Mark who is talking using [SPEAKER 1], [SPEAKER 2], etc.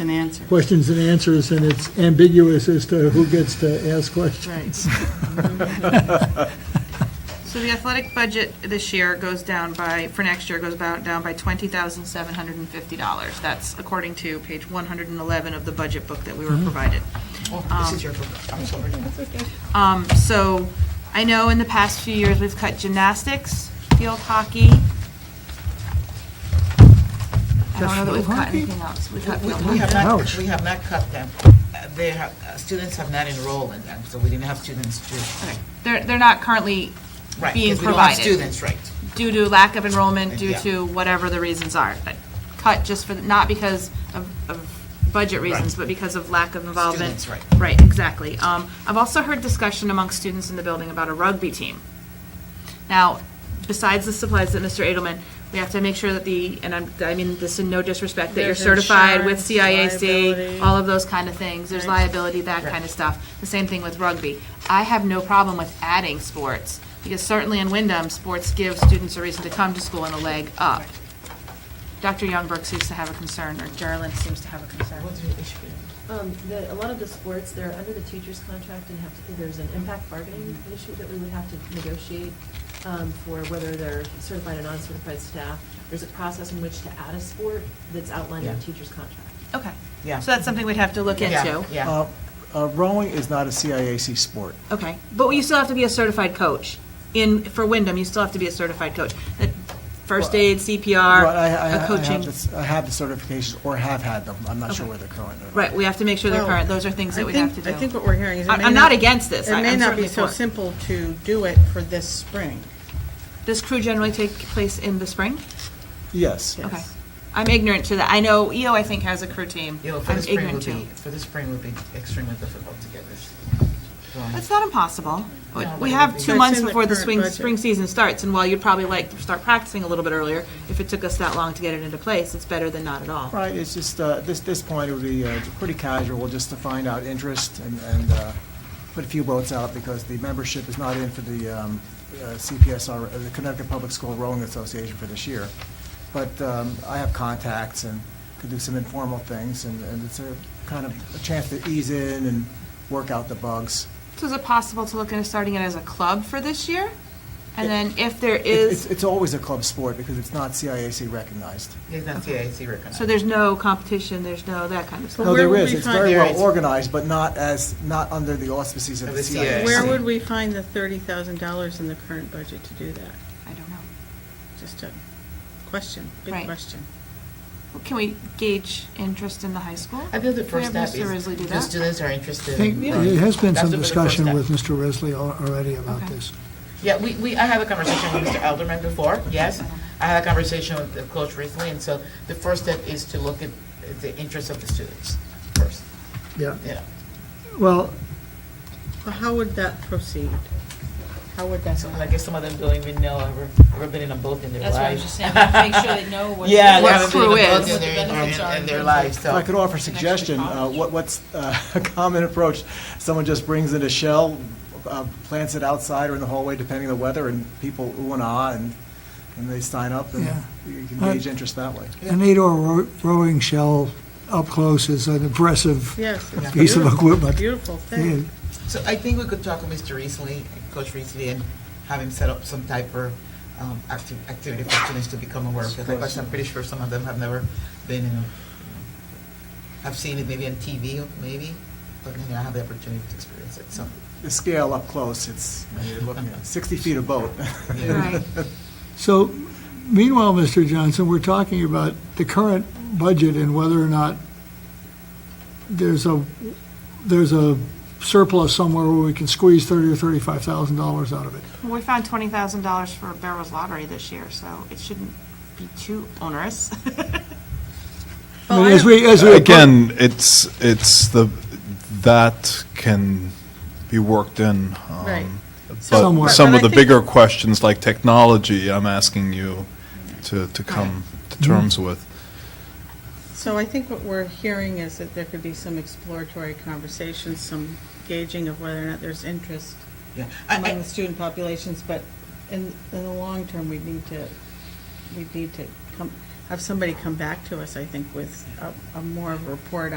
[SPEAKER 1] an answer.
[SPEAKER 2] questions and answers, and it's ambiguous as to who gets to ask
[SPEAKER 1] Right.
[SPEAKER 2] questions.
[SPEAKER 1] So the athletic budget this year goes down by, for next year, goes about, down by $20,750. That's according to page 111 of the budget book that we were provided.
[SPEAKER 3] Oh, This is your book, I'm sorry.
[SPEAKER 1] Um, So I know in the past few years, we've cut gymnastics, field hockey. I don't know that we've cut anything else. We've cut
[SPEAKER 3] We
[SPEAKER 1] field
[SPEAKER 3] we have
[SPEAKER 1] hockey.
[SPEAKER 3] not,
[SPEAKER 2] Ouch.
[SPEAKER 3] we have not cut them. Uh, They have, uh, students have not enrolled in them, so we didn't have students to,
[SPEAKER 1] Okay. They're, they're not currently
[SPEAKER 3] right.
[SPEAKER 1] Being
[SPEAKER 3] because we don't have
[SPEAKER 1] provided.
[SPEAKER 3] Students, right.
[SPEAKER 1] due to lack of enrollment, due
[SPEAKER 3] Yeah.
[SPEAKER 1] to whatever the reasons are. But Cut just for, not because of, of budget reasons, but because of lack of involvement.
[SPEAKER 3] Students, right.
[SPEAKER 1] Right, exactly. Um, I've also heard discussion among students in the building about a rugby team. Now, besides the supplies that Mr. Edelman, we have to make sure that the, and I'm, I mean this in no disrespect, that you're
[SPEAKER 4] There's
[SPEAKER 1] certified with
[SPEAKER 4] insurance,
[SPEAKER 1] CIAC,
[SPEAKER 4] liability.
[SPEAKER 1] all of those kind of things. There's liability, that kind of stuff. The same thing with rugby. I have no problem with adding sports, because certainly in Wyndham, sports give students a reason to come to school and a leg up. Dr. Youngberg seems to have a concern, or Gerlin seems to have a concern.
[SPEAKER 4] Um, the, a lot of the sports, they're under the teacher's contract and have to, there's an impact bargaining issue that we would have to negotiate, um, for whether they're certified or non-certified staff. There's a process in which to add a sport that's outlined in the
[SPEAKER 3] Yeah.
[SPEAKER 4] teacher's contract.
[SPEAKER 1] Okay.
[SPEAKER 3] Yeah.
[SPEAKER 1] So that's something we'd have to look
[SPEAKER 3] Yeah,
[SPEAKER 1] into.
[SPEAKER 3] Yeah,
[SPEAKER 5] Uh, uh, Rowing is not a CIAC sport.
[SPEAKER 1] Okay, but you still have to be a certified coach. In, for Wyndham, you still have to be a certified coach. That First
[SPEAKER 5] Well,
[SPEAKER 1] aid, CPR,
[SPEAKER 5] But I- I- I
[SPEAKER 1] a
[SPEAKER 5] have
[SPEAKER 1] coaching.
[SPEAKER 5] the s- I have the certifications, or have had them. I'm not sure
[SPEAKER 1] Okay.
[SPEAKER 5] where they're current. or not.
[SPEAKER 1] Right, we have to make sure they're
[SPEAKER 6] Well,
[SPEAKER 1] current. Those are
[SPEAKER 6] I
[SPEAKER 1] things that we
[SPEAKER 6] think-
[SPEAKER 1] have to do.
[SPEAKER 6] I think what we're hearing is. it
[SPEAKER 1] I-
[SPEAKER 6] may
[SPEAKER 1] I'm not against this. I-
[SPEAKER 6] It may
[SPEAKER 1] I'm
[SPEAKER 6] not be
[SPEAKER 1] certainly
[SPEAKER 6] so
[SPEAKER 1] for it.
[SPEAKER 6] simple to do it for this spring.
[SPEAKER 1] Does crew generally take place in the spring?
[SPEAKER 5] Yes.
[SPEAKER 1] Okay. I'm ignorant to that. I know EO, I think, has a crew team.
[SPEAKER 3] you know, E for
[SPEAKER 1] I'm
[SPEAKER 3] the spring
[SPEAKER 1] ignorant
[SPEAKER 3] would
[SPEAKER 1] to.
[SPEAKER 3] be, for the spring would be extremely difficult to get this. going.
[SPEAKER 1] That's not impossible. We-
[SPEAKER 3] No,
[SPEAKER 1] We
[SPEAKER 3] but it
[SPEAKER 1] have
[SPEAKER 3] would be-
[SPEAKER 1] two
[SPEAKER 6] It's
[SPEAKER 1] months
[SPEAKER 6] in the
[SPEAKER 1] before the
[SPEAKER 6] current
[SPEAKER 1] swing,
[SPEAKER 6] budget.
[SPEAKER 1] spring season starts, and while you'd probably like to start practicing a little bit earlier, if it took us that long to get it into place, it's better than not at all.
[SPEAKER 5] Right, it's just, uh, this, this point, it would be uh, pretty casual, just to find out interest and, and uh, put a few boats out, because the membership is not in for the um, uh, CPSR, uh, the Connecticut Public School Rowing Association for this year. But um, I have contacts and could do some informal things, and and it's a kind of a chance to ease in and work out the bugs.
[SPEAKER 1] So is it possible to look into starting it as a club for this year? And then if there
[SPEAKER 5] It- It's,
[SPEAKER 1] is,
[SPEAKER 5] it's always a club sport because it's not CIAC recognized.
[SPEAKER 3] Yeah, that's CIAC recognized.
[SPEAKER 1] so there's no competition, there's no that kind of stuff?
[SPEAKER 5] No,
[SPEAKER 6] where
[SPEAKER 5] there
[SPEAKER 6] would
[SPEAKER 5] is,
[SPEAKER 6] we
[SPEAKER 5] it's
[SPEAKER 6] find-
[SPEAKER 5] very
[SPEAKER 3] There
[SPEAKER 5] well
[SPEAKER 3] is.
[SPEAKER 5] organized, but not as, not under the auspices of
[SPEAKER 3] Of
[SPEAKER 5] the
[SPEAKER 3] the CIAC.
[SPEAKER 5] CIAC.
[SPEAKER 3] I
[SPEAKER 6] Where
[SPEAKER 3] see.
[SPEAKER 6] would we find the thirty thousand dollars in the current budget to do that?
[SPEAKER 1] I don't know.
[SPEAKER 6] Just a question,
[SPEAKER 1] Right.
[SPEAKER 6] big question.
[SPEAKER 1] Well, Can we gauge interest in the high school?
[SPEAKER 3] I feel the
[SPEAKER 1] Can we
[SPEAKER 3] first
[SPEAKER 1] have
[SPEAKER 3] step is,
[SPEAKER 1] Mr. Risley do
[SPEAKER 3] the
[SPEAKER 1] that?
[SPEAKER 3] students are interested.
[SPEAKER 2] I think
[SPEAKER 3] in-
[SPEAKER 2] there has been
[SPEAKER 3] That's
[SPEAKER 2] some
[SPEAKER 3] the first step.
[SPEAKER 2] discussion with Mr. Risley al- already about
[SPEAKER 1] Okay.
[SPEAKER 2] this.
[SPEAKER 3] Yeah, we, we, I had a conversation with Mr. Alderman before, yes. I had a conversation with the Coach recently, and so the first step is to look at the interests of the students first,
[SPEAKER 2] Yeah,
[SPEAKER 3] you know.
[SPEAKER 2] well,
[SPEAKER 6] Well, how would that proceed? How would that?
[SPEAKER 3] So I guess some of them don't even know, ever, ever been in a boat in their
[SPEAKER 7] That's
[SPEAKER 3] lives.
[SPEAKER 7] what I was just saying, make sure they know what.
[SPEAKER 3] Yeah, they
[SPEAKER 1] What
[SPEAKER 3] haven't been in a
[SPEAKER 1] crew
[SPEAKER 3] boat
[SPEAKER 1] is.
[SPEAKER 3] in
[SPEAKER 7] What the
[SPEAKER 3] their,
[SPEAKER 7] benefits
[SPEAKER 3] in-
[SPEAKER 7] are
[SPEAKER 3] in
[SPEAKER 7] in
[SPEAKER 3] their
[SPEAKER 7] terms
[SPEAKER 3] lives,
[SPEAKER 5] If I
[SPEAKER 3] so.
[SPEAKER 5] could offer a suggestion, uh, what, what's uh, a common approach? Someone just brings in a shell, uh, plants it outside or in the hallway, depending on the weather, and people ooh and ah, and, and they sign up, and
[SPEAKER 2] Yeah.
[SPEAKER 5] you can gauge
[SPEAKER 6] Uh,
[SPEAKER 5] interest that way.
[SPEAKER 2] an eight-oar row- rowing shell up close is an impressive
[SPEAKER 6] Yes. it's
[SPEAKER 2] piece of
[SPEAKER 6] beautiful,
[SPEAKER 2] equipment.
[SPEAKER 6] Beautiful
[SPEAKER 2] Yeah.
[SPEAKER 6] thing.
[SPEAKER 3] So I think we could talk with Mr. Reesley, Coach Reesley, and have him set up some type of um, acti- activity for students to become aware of. Because I'm pretty sure some of them have never been in, a- have seen it maybe on TV, maybe, but you know, have the opportunity to experience it, so.
[SPEAKER 5] The scale up close, it's, I mean, you're looking at 60 feet of boat.
[SPEAKER 1] Right.
[SPEAKER 2] So meanwhile, Mr. Johnson, we're talking about the current budget and whether or not there's a, there's a surplus somewhere where we can squeeze thirty or thirty-five thousand dollars out of it.
[SPEAKER 1] Well, We found twenty thousand dollars for Barrels Lottery this year, so it shouldn't be too onerous.
[SPEAKER 2] I mean, as we, as we.
[SPEAKER 8] Again, it's, it's the, that can be worked in. um,
[SPEAKER 6] Right.
[SPEAKER 2] Somewhere.
[SPEAKER 8] But some
[SPEAKER 6] But I
[SPEAKER 8] of the
[SPEAKER 6] think-
[SPEAKER 8] bigger questions like technology, I'm asking you to, to come to terms with.
[SPEAKER 6] So I think what we're hearing is that there could be some exploratory conversations, some gauging of whether or not there's interest
[SPEAKER 3] Yeah. I- I-
[SPEAKER 6] among the student populations, but in, in the long term, we need to, we need to come, have somebody come back to us, I think, with a, a more of a report on.